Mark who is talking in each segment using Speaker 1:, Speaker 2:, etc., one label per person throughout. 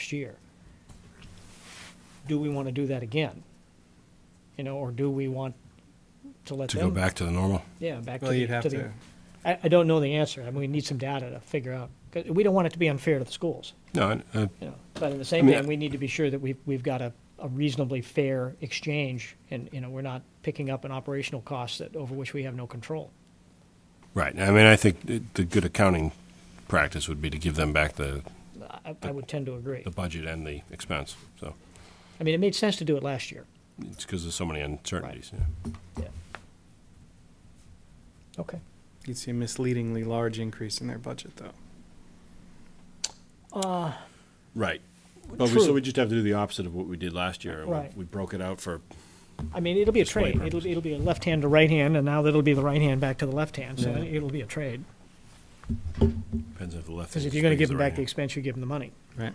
Speaker 1: next year. Do we want to do that again? You know, or do we want to let
Speaker 2: to
Speaker 1: them?
Speaker 2: go back to the normal.
Speaker 1: Yeah, back
Speaker 3: Well,
Speaker 1: to the.
Speaker 3: you'd have
Speaker 1: the-
Speaker 3: to-
Speaker 1: I, I don't know the answer. I mean, we need some data to figure out. 'Cause We don't want it to be unfair to the schools,
Speaker 2: No, I, I,
Speaker 1: you know. But at the same
Speaker 2: I mean,
Speaker 1: time,
Speaker 2: I-
Speaker 1: we need to be sure that we've, we've got a, a reasonably fair exchange and, you know, we're not picking up an operational cost that, over which we have no control.
Speaker 2: right. I mean, I think it- the good accounting practice would be to give them back the,
Speaker 1: I, I would tend to agree.
Speaker 2: the budget and the expense. So
Speaker 1: I mean, it made sense to do it last year.
Speaker 2: it's because there's so many uncertainties. Yeah.
Speaker 1: Yeah. Okay.
Speaker 3: You'd see a misleadingly large increase in their budget, though.
Speaker 2: Right. But we,
Speaker 1: True.
Speaker 2: so we just have to do the opposite of what we did last year. We-
Speaker 1: Right.
Speaker 2: We broke it out for
Speaker 1: I mean, it'll be a
Speaker 2: Display
Speaker 1: trade. It'll,
Speaker 2: purposes.
Speaker 1: it'll be a left hand to right hand, and now that'll be the right hand back to the left hand. So
Speaker 3: Yeah.
Speaker 1: it- it'll be a trade.
Speaker 2: depends if the left.
Speaker 1: Because
Speaker 2: hand
Speaker 1: if you're going to give them
Speaker 2: swings right
Speaker 1: back the
Speaker 2: hand.
Speaker 1: expense, you give them the money.
Speaker 3: Right.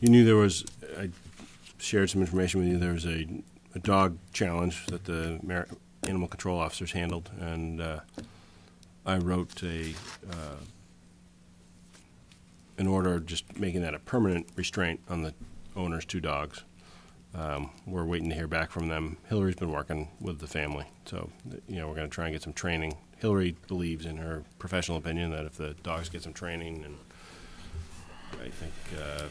Speaker 2: You knew there was, I shared some information with you, there was a, a dog challenge that the Mar- animal control officers handled, and uh, I wrote a, uh, an order just making that a permanent restraint on the owner's two dogs. Um, we're waiting to hear back from them. Hillary's been working with the family, so, you know, we're going to try and get some training. Hillary believes, in her professional opinion, that if the dogs get some training and I think uh,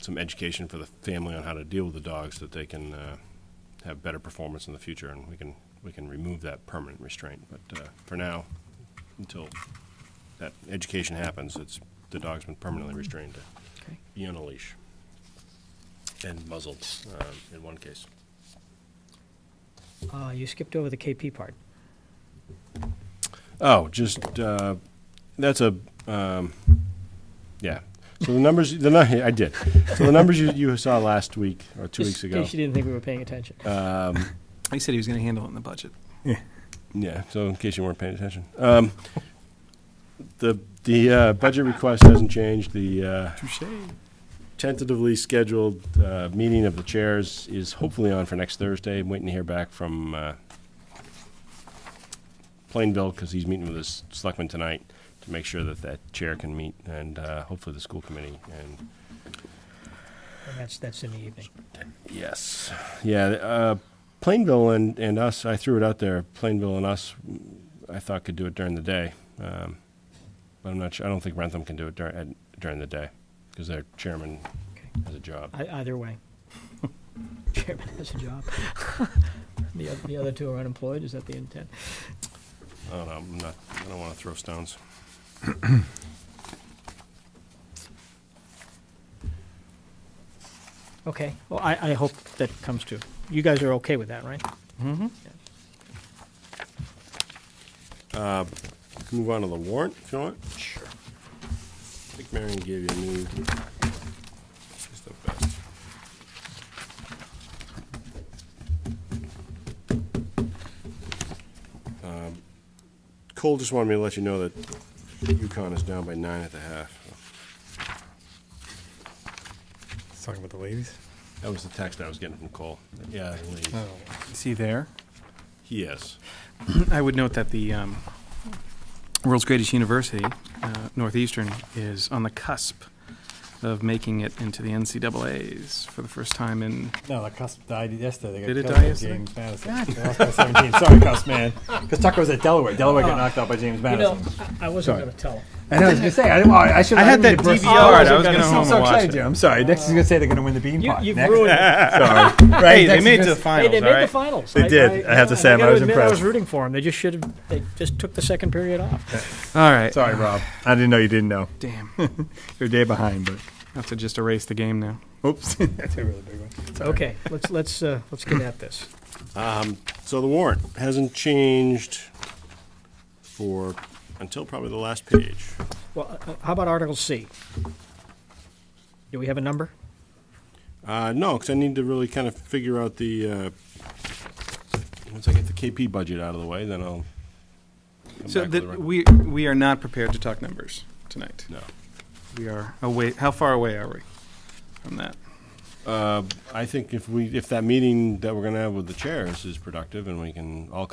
Speaker 2: some education for the family on how to deal with the dogs that they can uh, have better performance in the future, and we can we can remove that permanent restraint. But uh, for now, until that education happens, it's the dog's been permanently restrained to
Speaker 1: Okay.
Speaker 2: be on a leash and muzzled um, in one case.
Speaker 1: Uh, you skipped over the KP part.
Speaker 2: Oh, just uh, that's a um, yeah. So the numbers, the nu- I did. So the numbers you, you saw last week or two
Speaker 1: Just
Speaker 2: weeks ago. Uh.
Speaker 1: In case you didn't think we were paying attention.
Speaker 3: He said he was going to handle it in the budget.
Speaker 2: Yeah, so in case you weren't paying attention. Um, the the uh, budget request hasn't changed. The uh,
Speaker 3: Touche.
Speaker 2: tentatively scheduled uh, meeting of the chairs is hopefully on for next Thursday. I'm waiting to hear back from uh, Plainville because he's meeting with his selectman tonight to make sure that that chair can meet and uh, hopefully the school committee and
Speaker 1: And that's, that's in the evening.
Speaker 2: Yes. Yeah. Uh, Plainville and, and us, I threw it out there. Plainville and us, I thought could do it during the day. Um, but I'm not sure. I don't think Rentham can do it dur- at, during the day because their chairman
Speaker 1: Okay.
Speaker 2: has a job.
Speaker 1: I, either way. Chairman has a job. the, oth- the other two are unemployed. Is that the intent?
Speaker 2: I don't know. I'm not, I don't want to throw stones.
Speaker 1: Okay. Well, I, I hope that comes to. You guys are okay with that, right?
Speaker 2: We can move on to the warrant if you want. Sure. I think Marion gave you a new. She's the best. Um, Cole just wanted me to let you know that UConn is down by nine at the half.
Speaker 3: He's talking about the ladies.
Speaker 2: That was the text I was getting from Cole. Yeah, the ladies.
Speaker 3: Oh. Is he there?
Speaker 2: he is.
Speaker 3: I would note that the um, world's greatest university, uh, Northeastern, is on the cusp of making it into the NCAA's for the first time in.
Speaker 4: No, the Cusp died yesterday. They got
Speaker 3: Did it
Speaker 4: killed
Speaker 3: die
Speaker 4: by
Speaker 3: yesterday?
Speaker 4: James Madison. They lost by 17. Sorry, Cusp, man. Because Tucker was at Delaware. Delaware
Speaker 3: Oh.
Speaker 4: got knocked out by James
Speaker 1: You know,
Speaker 4: Madison.
Speaker 1: I, I wasn't going to tell him.
Speaker 4: I know, I was going to say. I, didn't, well, I, should,
Speaker 3: I had that
Speaker 4: didn't mean
Speaker 3: DVR,
Speaker 4: to burst-
Speaker 3: I was
Speaker 4: I'm
Speaker 3: gonna
Speaker 4: so-
Speaker 3: home
Speaker 4: so
Speaker 3: and watch
Speaker 4: excited,
Speaker 3: it.
Speaker 4: Jim. I'm sorry. Next is going to say they're going to win the
Speaker 1: You,
Speaker 4: Beanpot.
Speaker 1: you've
Speaker 4: Next-
Speaker 1: ruined it.
Speaker 4: Sorry. Right?
Speaker 3: Hey, they
Speaker 4: Next is
Speaker 3: made
Speaker 4: gonna-
Speaker 3: the
Speaker 1: Hey,
Speaker 3: finals,
Speaker 1: they
Speaker 3: all
Speaker 1: made the
Speaker 3: right?
Speaker 1: finals.
Speaker 4: They did. I have to say, I'm- I
Speaker 1: gotta
Speaker 4: was
Speaker 1: admit, I
Speaker 4: impressed.
Speaker 1: was rooting for them. They just should have. They just took the second period off.
Speaker 3: All right.
Speaker 4: Sorry, Rob. I didn't know you didn't know.
Speaker 3: Damn.
Speaker 4: You're a day behind, but
Speaker 3: have to just erase the game now.
Speaker 4: oops. That's a really big one. Sorry.
Speaker 1: Okay, let's let's uh, let's get at this.
Speaker 2: So the warrant hasn't changed for until probably the last page.
Speaker 1: Well, uh, uh, how about Article C? Do we have a number?
Speaker 2: Uh, no, because I need to really kind of figure out the, uh, once I get the KP budget out of the way, then I'll come
Speaker 3: So
Speaker 2: back with
Speaker 3: that
Speaker 2: the
Speaker 3: we we are not prepared to talk numbers tonight.
Speaker 2: No.
Speaker 3: We are away. How far away are we from that?
Speaker 2: I think if we, if that meeting that we're going to have with the chairs is productive and we can all